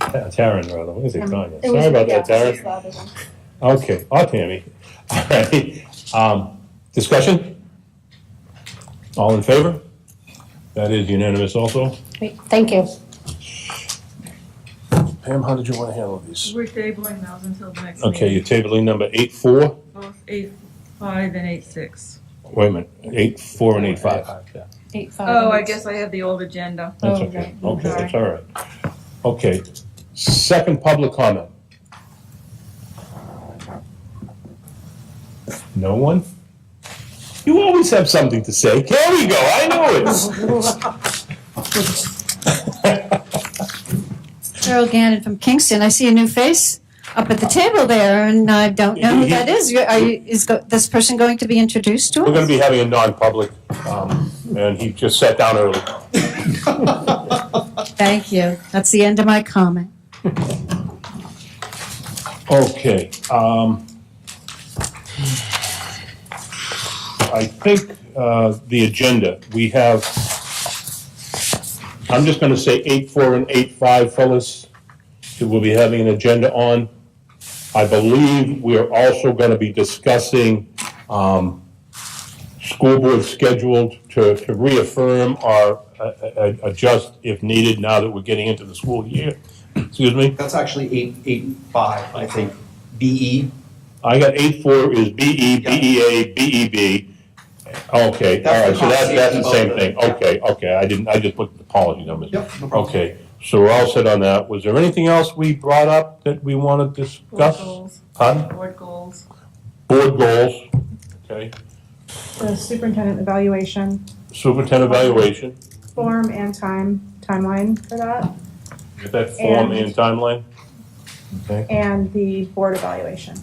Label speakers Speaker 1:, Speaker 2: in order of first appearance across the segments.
Speaker 1: Ta- Taryn, rather, what is it, Tanya?
Speaker 2: Um, It
Speaker 1: Sorry
Speaker 2: was-
Speaker 1: about
Speaker 2: yeah,
Speaker 1: that, Taryn.
Speaker 2: she's louder than-
Speaker 1: Okay, or Tammy. All right, um, discussion? All in favor? That is unanimous also.
Speaker 3: Great, Thank you.
Speaker 1: Pam, how did you want to handle these?
Speaker 4: We're tabling those until the next meeting.
Speaker 1: Okay, you're tabling number eight four,
Speaker 4: Both eight, five and eight, six.
Speaker 1: wait a minute, eight four and eight five.
Speaker 3: Eight
Speaker 5: Uh,
Speaker 3: five.
Speaker 4: Oh, I
Speaker 3: minutes.
Speaker 4: guess I have the old agenda.
Speaker 1: That's
Speaker 3: Oh,
Speaker 1: okay,
Speaker 3: right.
Speaker 1: okay, that's all right. Okay, second public comment. No one? You always have something to say, there we go, I know it.
Speaker 3: Cheryl Gannon from Kingston. I see a new face up at the table there, and I don't know who that is. You're- Are you, is go- this person going to be introduced to us?
Speaker 1: We're gonna be having a non-public, um, and he just sat down early.
Speaker 3: Thank you. That's the end of my comment.
Speaker 1: Okay, um, I think, uh, the agenda, we have, I'm just gonna say eight four and eight five, fellas, that we'll be having an agenda on. I believe we are also gonna be discussing, um, school board scheduled to, to reaffirm or, uh, uh, adjust if needed now that we're getting into the school year. Excuse me?
Speaker 6: That's actually eight, eight, five, I think, E? BE.
Speaker 1: I got eight four is B E, B E A, B E B. Okay, all right, so that's, that's the same thing. Okay, okay, I didn't, I just put the policy numbers.
Speaker 6: Yep, no problem.
Speaker 1: Okay, so we're all set on that. Was there anything else we brought up that we want to
Speaker 4: Board
Speaker 1: discuss?
Speaker 4: goals,
Speaker 1: Huh?
Speaker 4: board goals.
Speaker 1: Board goals, okay,
Speaker 5: the superintendent evaluation
Speaker 1: superintendent evaluation,
Speaker 5: form and time, timeline for that,
Speaker 1: get that form
Speaker 5: And-
Speaker 1: and timeline.
Speaker 5: and the board evaluation.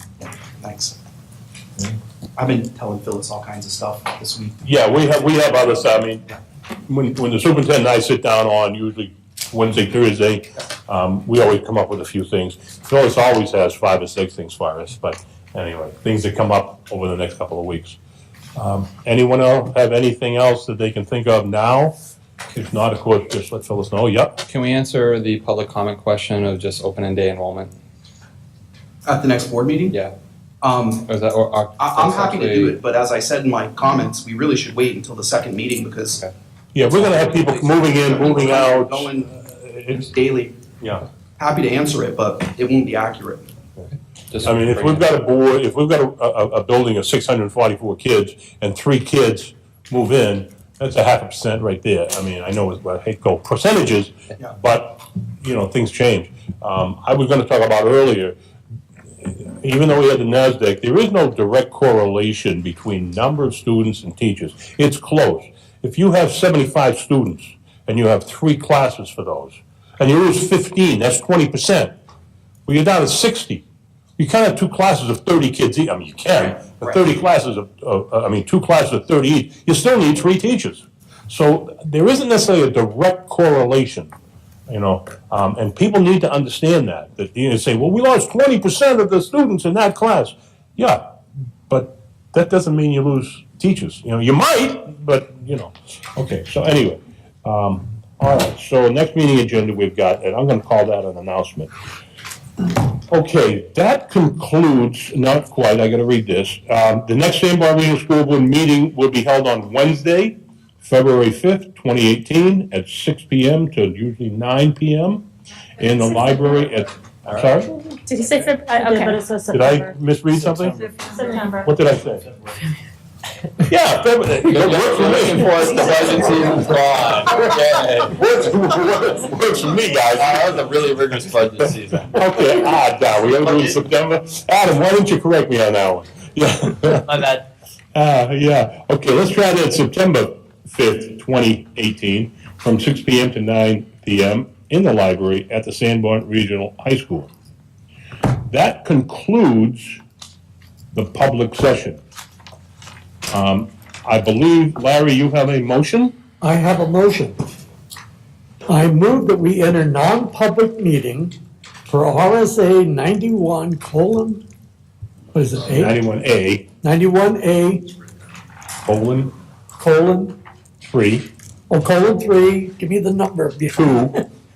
Speaker 6: Thanks. I've been telling Phyllis all kinds of stuff this week.
Speaker 1: Yeah, we have, we have others, I mean, when, when the superintendent and I sit down on usually Wednesday, Thursday, um, we always come up with a few things. Phyllis always has five or six things for us, but anyway, things that come up over the next couple of weeks. Um, anyone else have anything else that they can think of now? If not, of course, just let Phyllis know, yep,
Speaker 7: Can we answer the public comment question of just opening day enrollment?
Speaker 6: At the next board meeting?
Speaker 7: Yeah.
Speaker 6: Um,
Speaker 7: Or is that, or? or-
Speaker 6: I, I'm happy to do
Speaker 7: actually-
Speaker 6: it, but as I said in my comments, we really should wait until the second meeting because.
Speaker 1: yeah, we're gonna have people moving in, moving out.
Speaker 6: Going
Speaker 1: It's,
Speaker 6: daily.
Speaker 1: yeah,
Speaker 6: Happy to answer it, but it won't be accurate.
Speaker 7: just
Speaker 1: I mean, if
Speaker 7: bring
Speaker 1: we've
Speaker 7: it.
Speaker 1: got a board, if we've got a, a, a building of six hundred and forty-four kids and three kids move in, that's a half a percent right there. I mean, I know, it's- I hate to go percentages,
Speaker 6: Yeah.
Speaker 1: but, you know, things change. Um, I was gonna talk about earlier, even though we had the NASDAQ, there is no direct correlation between number of students and teachers. It's close. If you have seventy-five students and you have three classes for those, and you lose fifteen, that's twenty percent. Well, you're down to sixty. You can't have two classes of thirty kids each. I mean, you can, but
Speaker 6: Right.
Speaker 1: thirty classes of, of, uh, I mean, two classes of thirty each, you still need three teachers. So there isn't necessarily a direct correlation you know, um, and people need to understand that. That you know, say, well, we lost twenty percent of the students in that class. Yeah, but that doesn't mean you lose teachers. You know, you might, but you know. Okay, so anyway, um, all right. So next meeting agenda we've got, and I'm going to call that an announcement. Okay, that concludes. Not quite. I got to read this. Um, the next San Barbara Regional School Board meeting will be held on Wednesday, February 5th, 2018, at 6 PM to usually 9 PM in the library at, I'm sorry,
Speaker 8: Did he say Feb, I- okay.
Speaker 1: did I misread something? What did I say? Yeah, February,
Speaker 7: You're
Speaker 1: it works for
Speaker 7: looking
Speaker 1: me.
Speaker 7: for us, the budget season's gone. Yeah.
Speaker 1: Works- Works works for me, guys.
Speaker 7: That was a really rigorous budget season.
Speaker 1: Okay, ah, now, we ever do it in September? Adam, why didn't you correct me on that one? Yeah.
Speaker 9: My bad.
Speaker 1: Uh, yeah, okay, let's try that September fifth, twenty eighteen, from six P M to nine P M in the library at the Sanborn Regional High School. That concludes the public session. Um, I believe, Larry, you have a motion?
Speaker 9: I have a motion. I move that we enter non-public meeting for RSA ninety-one colon, what is it, eight?
Speaker 1: Ninety-one A,
Speaker 9: Ninety-one A
Speaker 1: colon,
Speaker 9: colon,
Speaker 1: three,
Speaker 9: oh, colon three, give me the number.
Speaker 1: two,